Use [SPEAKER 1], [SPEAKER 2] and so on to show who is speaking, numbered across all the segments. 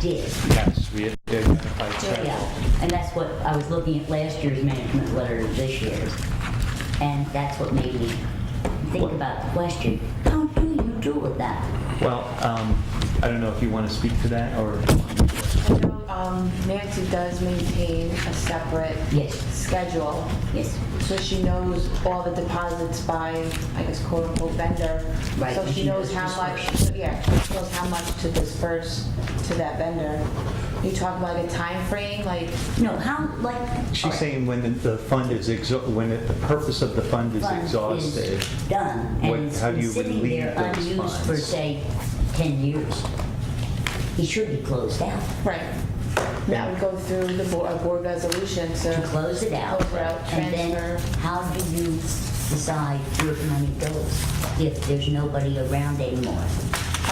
[SPEAKER 1] did.
[SPEAKER 2] Yes, we identified several.
[SPEAKER 1] Yeah, and that's what, I was looking at last year's management letter, to this year's, and that's what made me think about the question, how do you deal with that?
[SPEAKER 2] Well, um, I don't know if you want to speak to that, or,
[SPEAKER 3] I know um, Nancy does maintain a separate
[SPEAKER 1] Yes.
[SPEAKER 3] schedule,
[SPEAKER 1] Yes,
[SPEAKER 3] so she knows all the deposits by, I guess quote unquote vendor.
[SPEAKER 1] Right,
[SPEAKER 3] So
[SPEAKER 1] and
[SPEAKER 3] she
[SPEAKER 1] she
[SPEAKER 3] knows
[SPEAKER 1] knows
[SPEAKER 3] how much,
[SPEAKER 1] dispersion.
[SPEAKER 3] yeah, she knows how much to disperse to that vendor. You talk about a time frame, like,
[SPEAKER 1] no, how, like.
[SPEAKER 2] she's saying when the the fund is, exha- when it- the purpose of the fund is
[SPEAKER 1] fund is
[SPEAKER 2] exhausted.
[SPEAKER 1] Done,
[SPEAKER 2] What-
[SPEAKER 1] and it's
[SPEAKER 2] how do
[SPEAKER 1] been
[SPEAKER 2] you
[SPEAKER 1] sitting
[SPEAKER 2] relieve
[SPEAKER 1] there
[SPEAKER 2] those
[SPEAKER 1] unused for,
[SPEAKER 2] funds?
[SPEAKER 1] say, ten years. It should be closed out,
[SPEAKER 3] right, that would go through the board, a board resolution
[SPEAKER 1] to
[SPEAKER 3] to,
[SPEAKER 1] close it out.
[SPEAKER 3] Close it out,
[SPEAKER 1] And then,
[SPEAKER 3] transfer.
[SPEAKER 1] how do you decide where the money goes if there's nobody around anymore?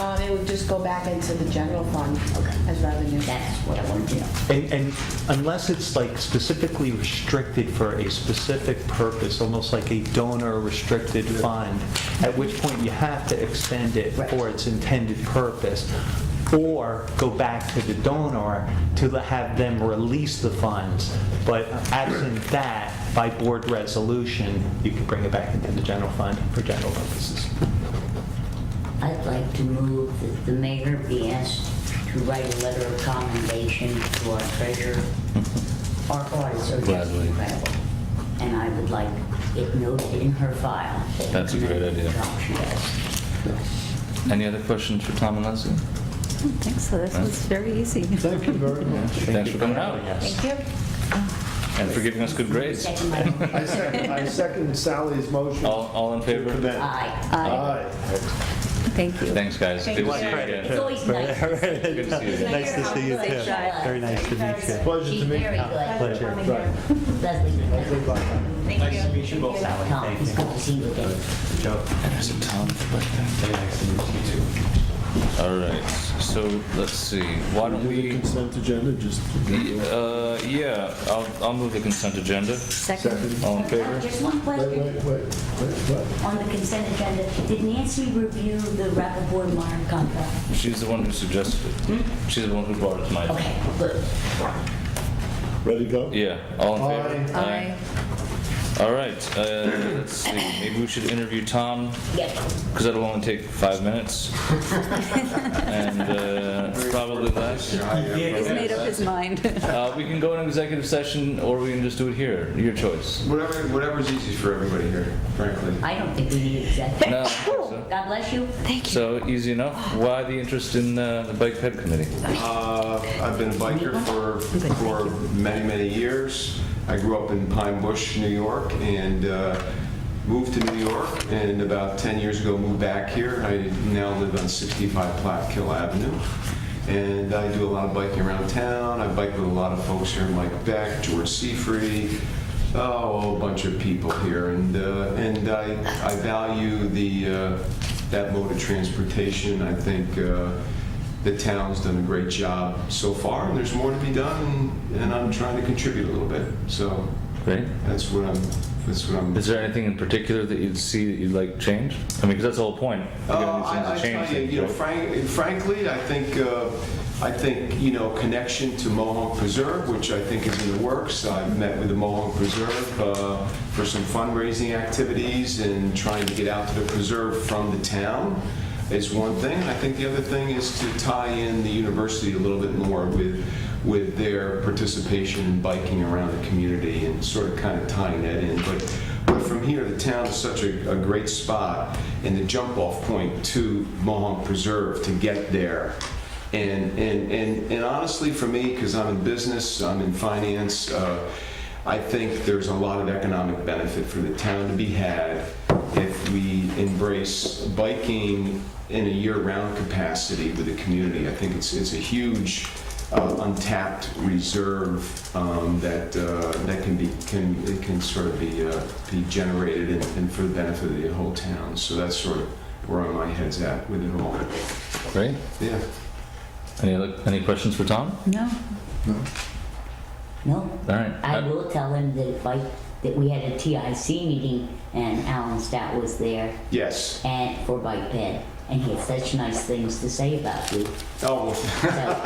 [SPEAKER 3] um, it would just go back into the general fund
[SPEAKER 1] Okay.
[SPEAKER 3] as revenue.
[SPEAKER 1] That's what I wanted to know.
[SPEAKER 2] And, and unless it's like specifically restricted for a specific purpose, almost like a donor restricted fund, at which point you have to extend it
[SPEAKER 1] Right.
[SPEAKER 2] for its intended purpose, or go back to the donor to the- have them release the funds. But absent that, by board resolution, you can bring it back into the general fund for general purposes.
[SPEAKER 1] I'd like to move that the mayor be asked to write a letter of commendation to our treasurer. Our audits are just
[SPEAKER 4] Gladly.
[SPEAKER 1] incredible, and I would like it noted in her file. that we
[SPEAKER 4] That's a great
[SPEAKER 1] commend the
[SPEAKER 4] idea.
[SPEAKER 1] job she does.
[SPEAKER 4] Any other questions for Tom and Leslie?
[SPEAKER 5] I don't think so. This was very easy.
[SPEAKER 6] Thank you very much.
[SPEAKER 4] Thanks for coming out
[SPEAKER 3] Thank you.
[SPEAKER 4] and for giving us good grades.
[SPEAKER 1] Second by-
[SPEAKER 6] I second, I second Sally's motion.
[SPEAKER 4] All, all in
[SPEAKER 6] to
[SPEAKER 4] favor?
[SPEAKER 6] commend.
[SPEAKER 1] Aye.
[SPEAKER 6] Aye.
[SPEAKER 5] Thank you.
[SPEAKER 4] Thanks, guys. Good to see you
[SPEAKER 1] It's
[SPEAKER 4] again.
[SPEAKER 1] always nice. to see her.
[SPEAKER 4] Good to see you. again.
[SPEAKER 5] Nice to see you,
[SPEAKER 1] She's
[SPEAKER 5] too.
[SPEAKER 1] very good.
[SPEAKER 2] nice to meet you.
[SPEAKER 6] Pleasure
[SPEAKER 1] She's
[SPEAKER 6] to meet
[SPEAKER 1] very
[SPEAKER 6] you.
[SPEAKER 1] good.
[SPEAKER 2] Pleasure.
[SPEAKER 1] Leslie, good night.
[SPEAKER 6] Goodbye.
[SPEAKER 2] Nice to meet you both.
[SPEAKER 1] Tom, it's good to see you again.
[SPEAKER 2] Joe.
[SPEAKER 4] There's a ton of questions.
[SPEAKER 2] Very nice to meet you too.
[SPEAKER 4] All right, so let's see, why don't
[SPEAKER 6] The
[SPEAKER 4] we,
[SPEAKER 6] consent agenda, just
[SPEAKER 4] uh, yeah, I'll, I'll move the consent agenda.
[SPEAKER 5] Second,
[SPEAKER 6] second.
[SPEAKER 4] All in favor?
[SPEAKER 1] Uh, Just one
[SPEAKER 6] Wait,
[SPEAKER 1] question.
[SPEAKER 6] wait, wait, wait, what?
[SPEAKER 1] on the consent agenda, did Nancy review the Rappaport Modern contract?
[SPEAKER 4] She's the one who suggested it. She's the one who brought it to my attention.
[SPEAKER 1] Okay, good.
[SPEAKER 6] Ready to go?
[SPEAKER 4] Yeah, all in favor?
[SPEAKER 5] aye.
[SPEAKER 4] All right, uh, let's see, maybe we should interview Tom,
[SPEAKER 1] Yeah,
[SPEAKER 4] because that'll only take five minutes. And uh, probably less.
[SPEAKER 5] He's made up his mind.
[SPEAKER 4] Uh, we can go in executive session, or we can just do it here. Your choice.
[SPEAKER 7] Whatever, whatever's easiest for everybody here, frankly.
[SPEAKER 1] I don't think we need exactly.
[SPEAKER 4] No, I think so.
[SPEAKER 1] God bless you.
[SPEAKER 4] So easy enough. Why the interest in uh, the bike ped committee?
[SPEAKER 7] Uh, I've been a biker for, for many, many years. I grew up in Pine Bush, New York, and uh, moved to New York, and about 10 years ago moved back here. I now live on 65 Platkill Avenue, and I do a lot of biking around town. I bike with a lot of folks here, Mike Beck, George Seafree, oh, a whole bunch of people here, and, uh, and I, I value the, uh, that mode of transportation. I think uh, the town's done a great job so far, and there's more to be done, and- and I'm trying to contribute a little bit, so
[SPEAKER 4] Right?
[SPEAKER 7] that's what I'm, that's what I'm.
[SPEAKER 4] Is there anything in particular that you'd see that you'd like changed? I mean, because that's the whole point. We're gonna do
[SPEAKER 7] Uh,
[SPEAKER 4] things
[SPEAKER 7] I, I
[SPEAKER 4] to change
[SPEAKER 7] tell you,
[SPEAKER 4] things,
[SPEAKER 7] you know,
[SPEAKER 4] right?
[SPEAKER 7] frank, frankly, I think, uh, I think, you know, connection to Mohonk Preserve, which I think is in the works. I've met with the Mohonk Preserve uh, for some fundraising activities and trying to get out to the preserve from the town is one thing. I think the other thing is to tie in the university a little bit more with, with their participation in biking around the community and sort of kind of tying that in. But, but from here, the town is such a, a great spot and the jump off point to Mohonk Preserve to get there. And, and, and, and honestly, for me, because I'm in business, I'm in finance, uh, I think there's a lot of economic benefit for the town to be had if we embrace biking in a year-round capacity with the community. I think it's, it's a huge uh, untapped reserve um, that, uh, that can be, can, it can sort of be, uh, be generated and and for the benefit of the whole town. So that's sort of where my head's at with it all.
[SPEAKER 4] Right?
[SPEAKER 7] Yeah.
[SPEAKER 4] Any other, any questions for Tom?
[SPEAKER 5] No,
[SPEAKER 1] No,
[SPEAKER 4] All right.
[SPEAKER 1] I
[SPEAKER 4] Uh,
[SPEAKER 1] will tell him that if I, that we had a TIC meeting and Alan Stout was there
[SPEAKER 7] Yes.
[SPEAKER 1] and for Bike Ped, and he had such nice things to say about you.
[SPEAKER 7] Oh, well,
[SPEAKER 1] So